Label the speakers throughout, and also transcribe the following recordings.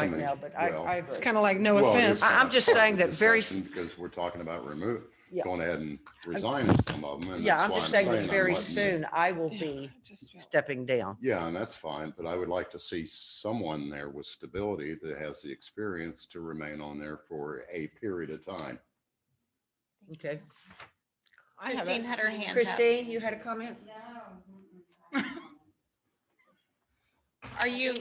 Speaker 1: right now, but I,
Speaker 2: Well,
Speaker 1: I agree.
Speaker 3: It's kind of like, no
Speaker 2: Well,
Speaker 3: offense.
Speaker 2: it's
Speaker 1: I- I'm
Speaker 2: not
Speaker 1: just
Speaker 2: part of
Speaker 1: saying
Speaker 2: the
Speaker 1: that very-
Speaker 2: discussion Because we're talking about remove,
Speaker 1: Yeah.
Speaker 2: going ahead and resigning some of them. and
Speaker 1: Yeah,
Speaker 2: that's
Speaker 1: I'm
Speaker 2: why
Speaker 1: just saying that
Speaker 2: I'm
Speaker 1: very
Speaker 2: letting you-
Speaker 1: soon I will
Speaker 3: Yeah,
Speaker 1: be
Speaker 3: I just felt-
Speaker 1: stepping down.
Speaker 2: Yeah, and that's fine, but I would like to see someone there with stability that has the experience to remain on there for a period of time.
Speaker 1: Okay.
Speaker 3: I have
Speaker 4: Christine
Speaker 3: a-
Speaker 4: had her hand up.
Speaker 1: Christine, you had a comment?
Speaker 4: Are you?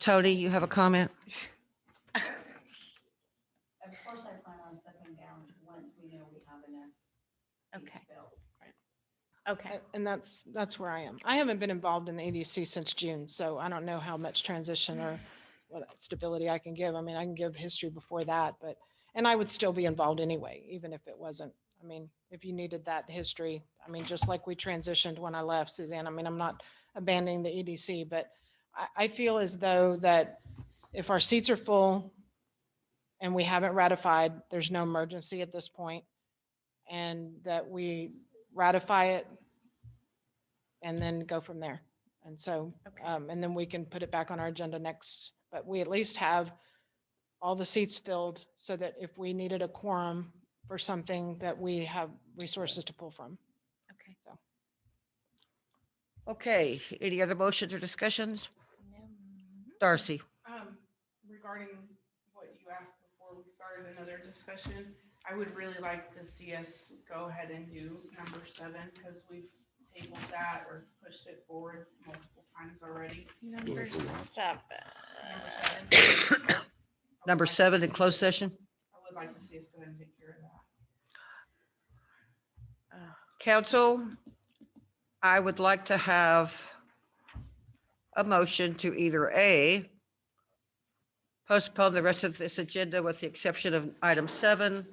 Speaker 1: Tony, you have a comment?
Speaker 5: Of course, I plan on stepping down once we know we have enough. seats
Speaker 4: Okay.
Speaker 5: filled.
Speaker 4: Okay.
Speaker 3: And that's, that's where I am. I haven't been involved in the ADC since June, so I don't know how much transition or what stability I can give. I mean, I can give history before that, but, and I would still be involved anyway, even if it wasn't. I mean, if you needed that history, I mean, just like we transitioned when I left, Suzanne, I mean, I'm not abandoning the EDC, but I, I feel as though that if our seats are full and we haven't ratified, there's no emergency at this point, And that we ratify it and then go from there. And so,
Speaker 4: Okay.
Speaker 3: um, and then we can put it back on our agenda next, but we at least have all the seats filled so that if we needed a quorum for something that we have resources to pull from.
Speaker 4: Okay.
Speaker 1: Okay, any other motions or discussions? Darcy?
Speaker 6: Um, regarding what you asked before we started another discussion, I would really like to see us go ahead and do number seven, because we've tabled that or pushed it forward multiple times already.
Speaker 4: Number seven.
Speaker 6: Number seven. I
Speaker 1: Number
Speaker 6: would like to
Speaker 1: seven in
Speaker 6: see
Speaker 1: closed
Speaker 6: us-
Speaker 1: session?
Speaker 6: I would like to see us go ahead and take care of that.
Speaker 1: Council, I would like to have a motion to either A, postpone the rest of this agenda with the exception of item seven,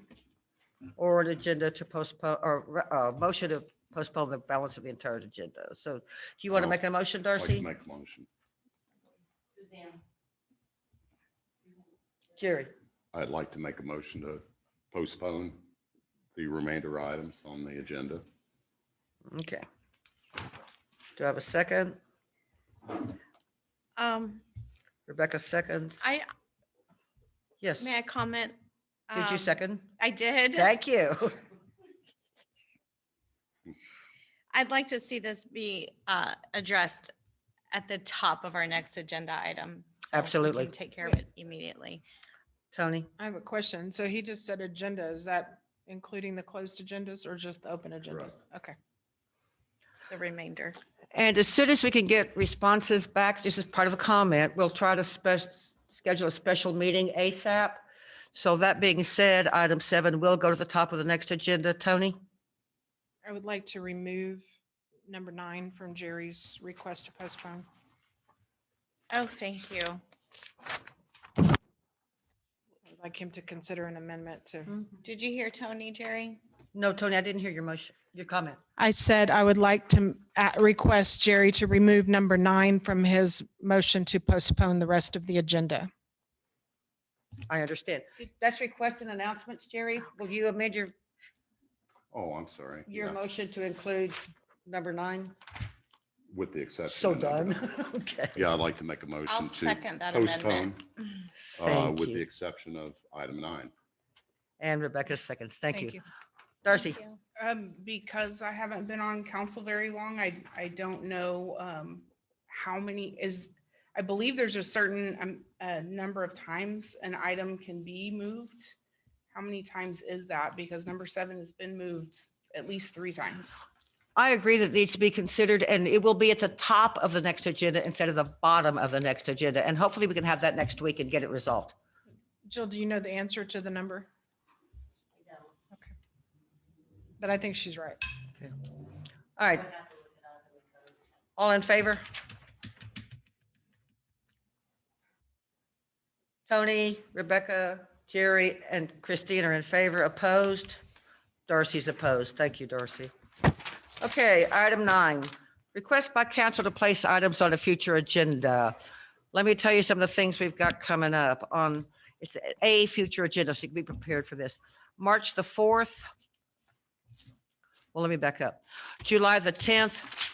Speaker 1: or an agenda to postpone, or uh, motion to postpone the balance of the entire agenda. So do you want to
Speaker 2: I'll-
Speaker 1: make a motion,
Speaker 2: I'd Like to
Speaker 1: Darcy?
Speaker 2: make a motion.
Speaker 5: Suzanne,
Speaker 1: Jerry?
Speaker 2: I'd like to make a motion to postpone the remainder items on the agenda.
Speaker 1: Okay. Do I have a second?
Speaker 4: Um,
Speaker 1: Rebecca seconds.
Speaker 4: I,
Speaker 1: Yes.
Speaker 4: may I comment?
Speaker 1: Did you
Speaker 4: Um,
Speaker 1: second?
Speaker 4: I did.
Speaker 1: Thank you.
Speaker 4: I'd like to see this be uh, addressed at the top of our next agenda item. so we can
Speaker 1: Absolutely.
Speaker 4: Take care of it immediately.
Speaker 1: Tony?
Speaker 3: I have a question. So he just said agenda. Is that including the closed agendas or just the open agendas? Okay.
Speaker 4: The remainder.
Speaker 1: And as soon as we can get responses back, this is part of a comment, we'll try to spec, schedule a special meeting ASAP. So that being said, item seven will go to the top of the next agenda. Tony?
Speaker 3: I would like to remove number nine from Jerry's request to postpone.
Speaker 4: Oh, thank you.
Speaker 3: I'd like him to consider an amendment to.
Speaker 4: Did you hear Tony, Jerry?
Speaker 1: No, Tony, I didn't hear your motion, your comment.
Speaker 3: I said I would like to uh, request Jerry to remove number nine from his motion to postpone the rest of the agenda.
Speaker 1: I understand. That's request and announcements, Jerry. Will you amend your,
Speaker 2: Oh, I'm sorry.
Speaker 1: your
Speaker 2: Yeah,
Speaker 1: motion to include number nine?
Speaker 2: With the exception.
Speaker 1: So
Speaker 2: of number
Speaker 1: done.
Speaker 2: nine.
Speaker 1: Okay.
Speaker 2: Yeah, I'd like to make a
Speaker 4: I'll
Speaker 2: motion to
Speaker 4: second that amendment.
Speaker 2: postpone, uh,
Speaker 1: Thank
Speaker 2: with the
Speaker 1: you.
Speaker 2: exception of item nine.
Speaker 1: And Rebecca seconds. Thank you. Darcy?
Speaker 4: Thank you.
Speaker 6: Um, because I haven't been on council very long, I, I don't know, um, how many is, I believe there's a certain, um, uh, number of times an item can be moved. How many times is that? Because number seven has been moved at least three times.
Speaker 1: I agree that it needs to be considered and it will be at the top of the next agenda instead of the bottom of the next agenda. And hopefully we can have that next week and get it resolved.
Speaker 3: Jill, do you know the answer to the number?
Speaker 5: I don't.
Speaker 3: But I think she's right.
Speaker 1: All
Speaker 5: I'd
Speaker 1: right.
Speaker 5: have to look it up and look it up.
Speaker 1: All in favor? Tony, Rebecca, Jerry, and Christine are in favor. Opposed? Darcy's opposed. Thank you, Darcy. Okay, item nine, request by council to place items on a future agenda. Let me tell you some of the things we've got coming up on, it's a future agenda, so you can be prepared for this. March the 4th. Well, let me back up. July the 10th,